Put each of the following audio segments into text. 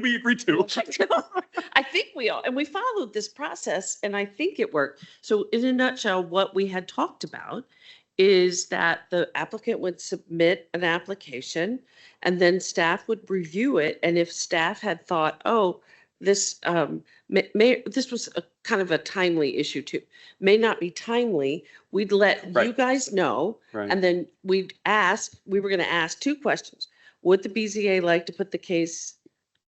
we agreed to. I think we all, and we followed this process and I think it worked. So in a nutshell, what we had talked about is that the applicant would submit an application and then staff would review it. And if staff had thought, oh, this um may, may, this was a kind of a timely issue too, may not be timely, we'd let you Right. guys know. Right. And then we'd ask, we were gonna ask two questions. Would the BZA like to put the case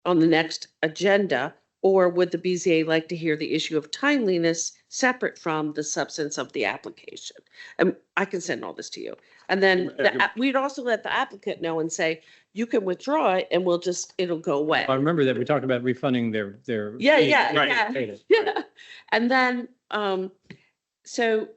on the next agenda? Or would the BZA like to hear the issue of timeliness separate from the substance of the application? And I can send all this to you. And then the Yeah. app- we'd also let the applicant know and say, you can withdraw it and we'll just, it'll go away. I remember that we talked about refunding their, their. Yeah, aid. yeah, Right. yeah. Aid. Yeah, and then, um, so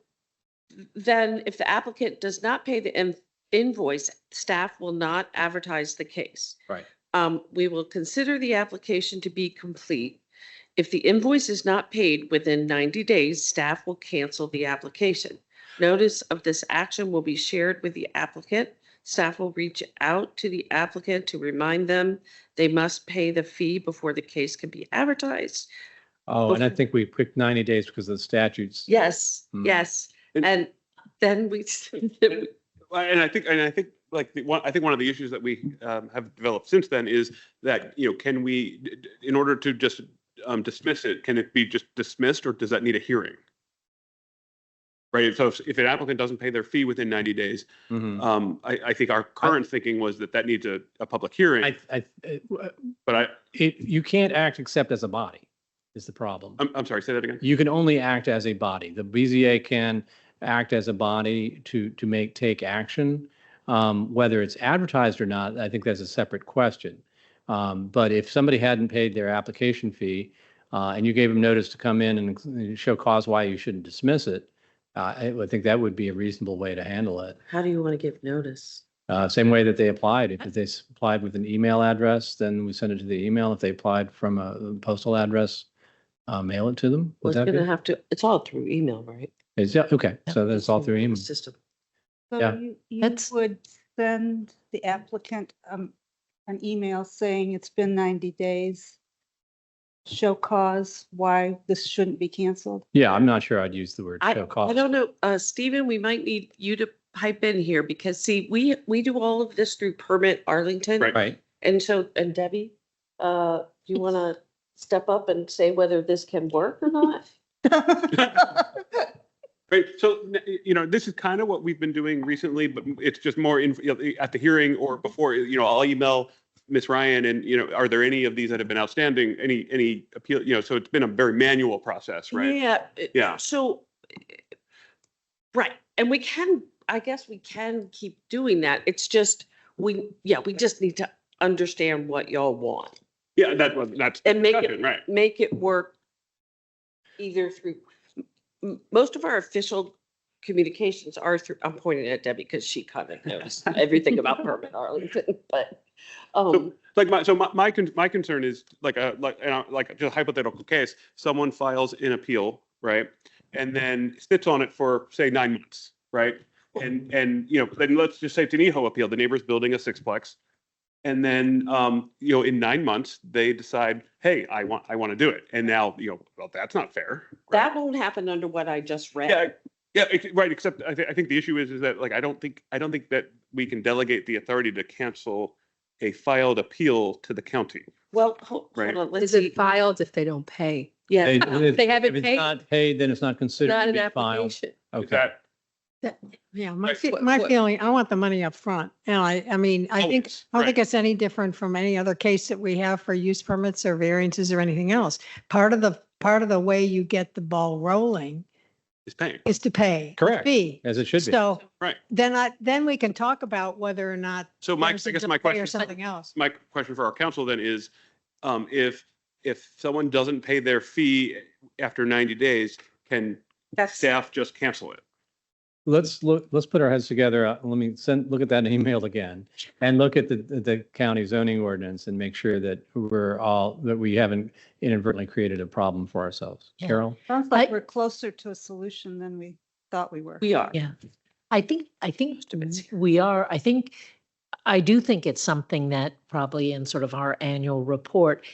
then if the applicant does not pay the in- invoice, staff will not advertise the case. Right. Um, we will consider the application to be complete. If the invoice is not paid within ninety days, staff will cancel the application. Notice of this action will be shared with the applicant. Staff will reach out to the applicant to remind them they must pay the fee before the case can be advertised. Oh, and I think we picked ninety days because of the statutes. Yes, Hmm. yes. And- And then we, And I think, and I think, like, the one, I think one of the issues that we um, have developed since then is that, you know, can we, d- d- in order to just um, dismiss it, can it be just dismissed or does that need a hearing? Right, so if if an applicant doesn't pay their fee within 90 days, Mhm. um, I, I think our current thinking was that that needs a, a public hearing, I, I, it- but I, it, you can't act except as a body is the problem. I'm, I'm sorry, say that again. You can only act as a body. The BZA can act as a body to, to make, take action. Um, whether it's advertised or not, I think that's a separate question. Um, but if somebody hadn't paid their application fee, uh, and you gave them notice to come in and show cause why you shouldn't dismiss it, uh, I would think that would be a reasonable way to handle it. how do you want to give notice? Uh, same way that they applied. If they s- applied with an email address, then we send it to the email. If they applied from a postal address, uh, mail it to them. Well, Would it's that gonna be? have to, it's all through email, right? Is, yeah, okay, so that's all through email. System. Yeah. So you, you That's- would send the applicant um, an email saying it's been 90 days. Show cause why this shouldn't be canceled. Yeah, I'm not sure I'd use the word I, show I cause. don't know, uh, Stephen, we might need you to pipe in here because see, we, we do all of this through permit Arlington. Right. Right, And so, and Debbie, uh, do you want to step up and say whether this can work or not? Right, so, n- you know, this is kind of what we've been doing recently, but it's just more in, you know, at the hearing or before, you know, I'll email Ms. Ryan and, you know, are there any of these that have been outstanding, any, any appeal, you know, so it's been a very manual process, right? Yeah. it- Yeah. So, right, and we can, I guess we can keep doing that. It's just, we, yeah, we just need to understand what y'all want Yeah, that was, that's. and make it, discussion, Right, make it work either through, m- most of our official communications are through, I'm pointing at Debbie because she kind of knows everything about permit Arlington, but, um, like my, so my, my, con- my concern is like a, like, you know, like just a hypothetical case, someone files an appeal, right? And then sits on it for, say, nine months, right? And, and, you know, then let's just say it's an EHO appeal, the neighbor's building a sixplex. And then, um, you know, in nine months, they decide, hey, I want, I want to do it. And now, you know, well, that's not fair. right? that won't happen under what I just read. Yeah, yeah, ex- right, except I think, I think the issue is, is that like, I don't think, I don't think that we can delegate the authority to cancel a filed appeal to the county. Well, ho- Right. hold on, let's Is see. it filed if they don't pay? Yeah. They- If they If haven't it's paid, not paid, then it's not considered Not to an be filed. application. Is Okay, that, Yeah, my, Right. fe- What- my what- feeling, I want the money up front. And I, I mean, I think, Always, I don't oh, right. think it's any different from any other case that we have for use permits or variances or anything else. Part of the, part of the way you get the ball rolling is paying. is to pay. the Correct. Fee. as it should be. So. Right. Then I, then we can talk about whether or not. So my, I there's a guess my delay question, Or something else. my question for our council then is, um, if, if someone doesn't pay their fee after ninety days, can That's, staff just cancel it? Let's look, let's put our heads together. Uh, Let me send, look at that email again and look at the, the county zoning ordinance and make sure that we're all, that we haven't inadvertently created a problem for ourselves. Yeah. Carol? Sounds like I- we're closer to a solution than we thought we were. we are. Yeah. I think, I think we are, I think, I do think it's something that probably in sort of our annual report